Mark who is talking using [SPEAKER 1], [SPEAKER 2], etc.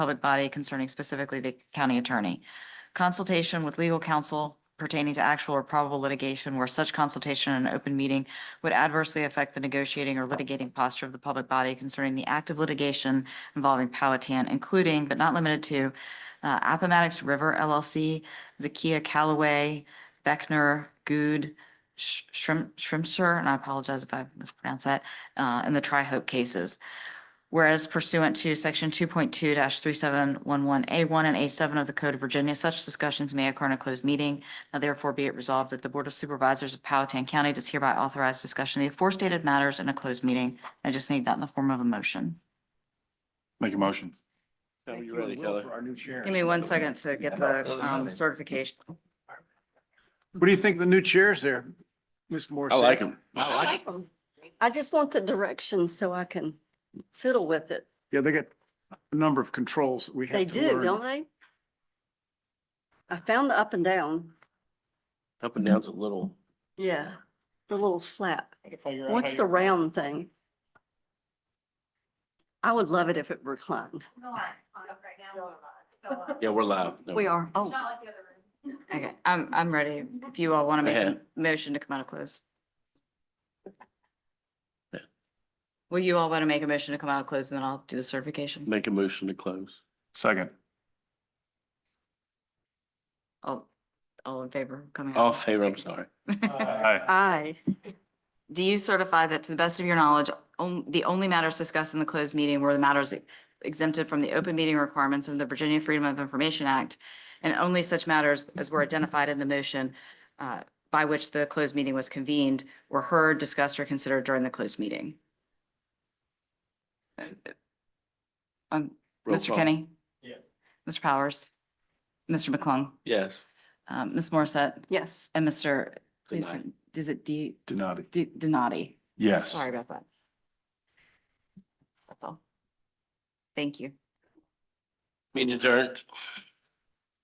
[SPEAKER 1] public body concerning specifically the county attorney. Consultation with legal counsel pertaining to actual or probable litigation where such consultation in an open meeting would adversely affect the negotiating or litigating posture of the public body concerning the active litigation involving Powhatan, including but not limited to uh, Appomattox River LLC, Zakia Callaway, Beckner, Good, Shrimp, Shrimpster, and I apologize if I mispronounce that, uh, and the Tri-Hope cases. Whereas pursuant to section two point two three seven one one A one and A seven of the Code of Virginia, such discussions may occur in a closed meeting. Now therefore be it resolved that the Board of Supervisors of Powhatan County does hereby authorize discussion of the aforestated matters in a closed meeting. I just need that in the form of a motion.
[SPEAKER 2] Make a motion.
[SPEAKER 3] Tell me
[SPEAKER 4] Thank
[SPEAKER 3] you
[SPEAKER 4] you
[SPEAKER 3] ready,
[SPEAKER 4] and Will
[SPEAKER 3] Kelly.
[SPEAKER 4] for our new sheriff.
[SPEAKER 1] Give me one second to get the um, certification.
[SPEAKER 4] What do you think of the new chairs there, Ms. Morissette?
[SPEAKER 2] I like him.
[SPEAKER 4] Oh, I like them.
[SPEAKER 5] I just want the directions so I can fiddle with it.
[SPEAKER 4] Yeah, they got a number of controls that we
[SPEAKER 5] They
[SPEAKER 4] have to
[SPEAKER 5] do, don't
[SPEAKER 4] learn.
[SPEAKER 5] they? I found the up and down.
[SPEAKER 3] Up and down's a little.
[SPEAKER 5] Yeah, the little slap.
[SPEAKER 4] I can figure out how
[SPEAKER 5] What's
[SPEAKER 4] you-
[SPEAKER 5] the round thing? I would love it if it reclined.
[SPEAKER 3] Yeah, we're live. No.
[SPEAKER 5] We are, oh,
[SPEAKER 1] Okay, I'm, I'm ready. If you all want to make a
[SPEAKER 3] Ahead.
[SPEAKER 1] motion to come out of close.
[SPEAKER 3] Yeah.
[SPEAKER 1] Will you all want to make a motion to come out of close and then I'll do the certification?
[SPEAKER 3] Make a motion to close.
[SPEAKER 2] Second.
[SPEAKER 1] All, all in favor of coming? out?
[SPEAKER 3] All in favor, I'm sorry.
[SPEAKER 2] Aye.
[SPEAKER 5] aye.
[SPEAKER 1] Do you certify that to the best of your knowledge, on- the only matters discussed in the closed meeting were the matters e-, exempted from the open meeting requirements of the Virginia Freedom of Information Act and only such matters as were identified in the motion uh, by which the closed meeting was convened were heard, discussed, or considered during the closed meeting? Um,
[SPEAKER 3] Roll
[SPEAKER 1] Mr.
[SPEAKER 3] call.
[SPEAKER 1] Kenny? Yes. Mr. Powers? Mr. McClung?
[SPEAKER 3] Yes.
[SPEAKER 1] um, Ms. Morissette?
[SPEAKER 5] Yes,
[SPEAKER 1] And Mr. please,
[SPEAKER 3] Good night.
[SPEAKER 1] Is it D,
[SPEAKER 2] Denati.
[SPEAKER 1] D- Donati?
[SPEAKER 2] Yes.
[SPEAKER 1] Sorry about that. That's all. Thank you.
[SPEAKER 3] Meeting adjourned.